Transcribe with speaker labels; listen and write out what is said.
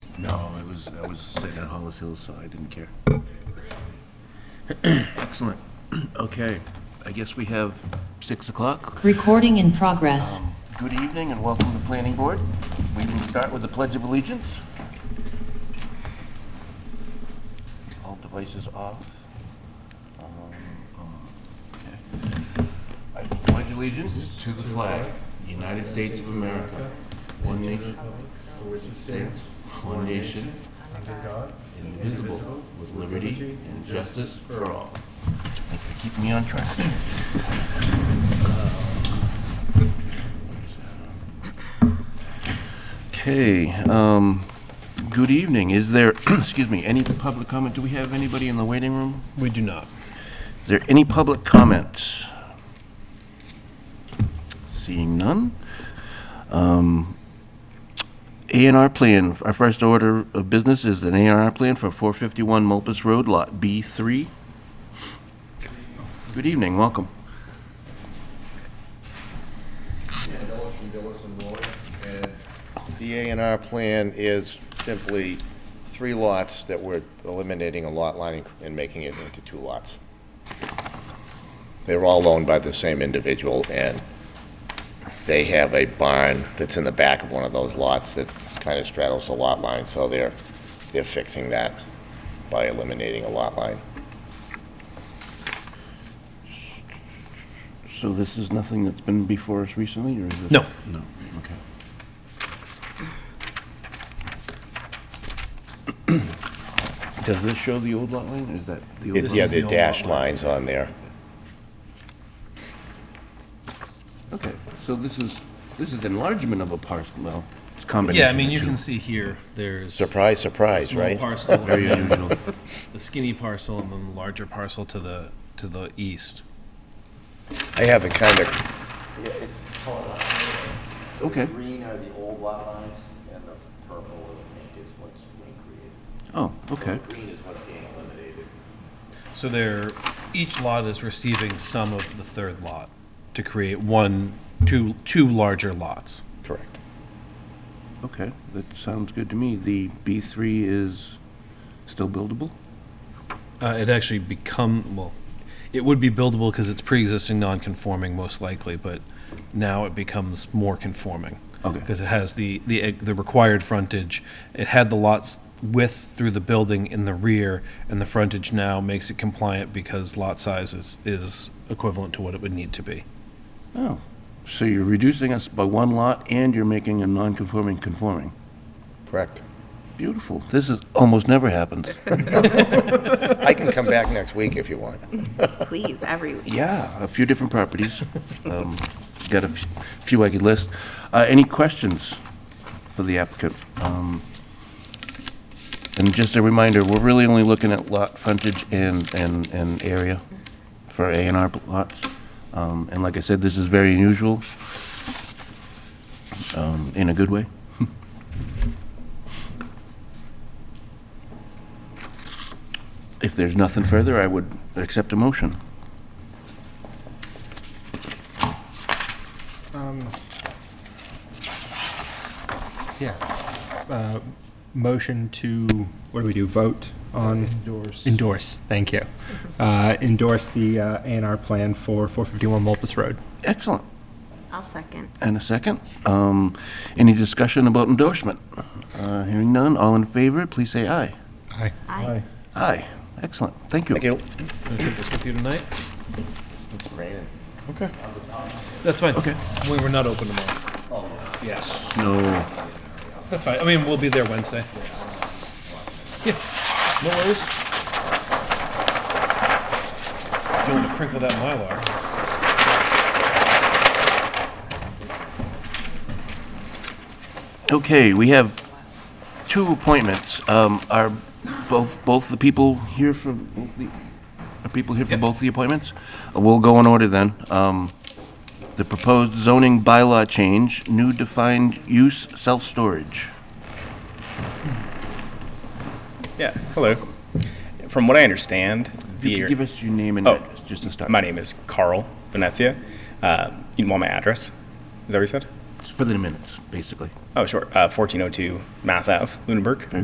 Speaker 1: No, I was, I was sitting at Hollis Hills, so I didn't care. Excellent. Okay, I guess we have 6 o'clock.
Speaker 2: Recording in progress.
Speaker 1: Um, Good evening and welcome to the Planning Board. We can start with the Pledge of Allegiance. All devices off. Um, um, okay. I pledge allegiance to the flag, United States of America, one nation, States, one nation, indivisible, with liberty and justice for all. Thanks for keeping me on track. Okay, um, good evening. Is there, excuse me, any public comment? Do we have anybody in the waiting room?
Speaker 3: We do not.
Speaker 1: Is there any public comment? Seeing none. Um, A and R plan, our first order of business is an A and R plan for 451 Mulpus Road, Lot B3. Good evening, welcome.
Speaker 4: Dillis from Dillis and Roy, and the A and R plan is simply three lots that we're eliminating a lot line and making it into two lots. They're all owned by the same individual, and they have a barn that's in the back of one of those lots that kind of straddles the lot line, so they're, they're fixing that by eliminating a lot line.
Speaker 1: So this is nothing that's been before us recently, or is this?
Speaker 3: No.
Speaker 1: No, okay. Does this show the old lot line, or is that the old?
Speaker 3: It-
Speaker 1: lot
Speaker 4: Yeah,
Speaker 1: line?
Speaker 3: is
Speaker 4: the
Speaker 3: the old lot
Speaker 4: dashed
Speaker 3: line.
Speaker 4: lines on there.
Speaker 1: Okay, so this is, this is enlargement of a parcel, well, it's a combination.
Speaker 3: Yeah, I mean,
Speaker 1: of
Speaker 3: you
Speaker 1: two.
Speaker 3: can see here, there's.
Speaker 4: Surprise, surprise,
Speaker 3: Small
Speaker 4: right?
Speaker 3: parcel,
Speaker 1: Very
Speaker 3: the
Speaker 1: unusual.
Speaker 3: skinny parcel, and then the larger parcel to the, to the east.
Speaker 4: I have it kind of
Speaker 5: Yeah, it's colored out.
Speaker 1: Okay.
Speaker 5: The green are the old lot lines, and the purple or the pink is what's being created.
Speaker 1: Oh, okay.
Speaker 5: The green is what's being eliminated.
Speaker 3: So there, each lot is receiving some of the third lot to create one, two, two larger lots.
Speaker 4: correct.
Speaker 1: Okay, that sounds good to me. The B3 is still buildable?
Speaker 3: Uh, it actually become, well, it would be buildable because it's pre-existing non-conforming most likely, but now it becomes more conforming.
Speaker 1: Okay.
Speaker 3: Because it has the, the, e, the required frontage. It had the lots width through the building in the rear, and the frontage now makes it compliant because lot size is, is equivalent to what it would need to be.
Speaker 1: Oh. So you're reducing us by one lot and you're making a non-conforming conforming.
Speaker 4: Correct.
Speaker 1: Beautiful. This is, almost never happens.
Speaker 4: I can come back next week if you want.
Speaker 6: Please, every week.
Speaker 1: Yeah, a few different properties. Um, Got a f- few I could list. Uh, Any questions for the applicant? Um, And just a reminder, we're really only looking at lot frontage and, and, and area for A and R lots. Um, And like I said, this is very unusual, um, in a good way. If there's nothing further, I would accept a motion.
Speaker 7: Um, Yeah. Uh, Motion to, what do we do, vote on? Endorse. Endorse, thank you. Uh, Endorse the A and R plan for 451 Mulpus Road.
Speaker 1: Excellent.
Speaker 6: I'll second.
Speaker 1: And a second. Um, Any discussion about endorsement? Uh, Hearing none, all in favor, please say aye.
Speaker 7: Aye.
Speaker 6: Aye.
Speaker 1: Aye. Excellent, thank you.
Speaker 4: Thank you.
Speaker 3: Can I take this with you tonight? Okay. That's fine.
Speaker 1: Okay.
Speaker 3: We were not open tomorrow. Oh. Yes.
Speaker 1: No,
Speaker 3: That's fine. I mean, we'll be there Wednesday. Yeah, no worries. You want to crinkle that mylar?
Speaker 1: okay, we have two appointments. Um, Are both, both the people here for, both the, are people here for both the appointments? Uh, We'll go in order then. Um, The proposed zoning bylaw change, new defined use self-storage.
Speaker 8: Yeah, hello. From what I understand,
Speaker 1: If you
Speaker 8: the,
Speaker 1: could give us your name and
Speaker 8: Oh.
Speaker 1: address, just to start.
Speaker 8: my name is Carl Venezia. Uh, you want my address? Is that what you said?
Speaker 1: It's For the minutes, basically.
Speaker 8: Oh, sure. Uh, 1402 Mass Ave, Lunenburg.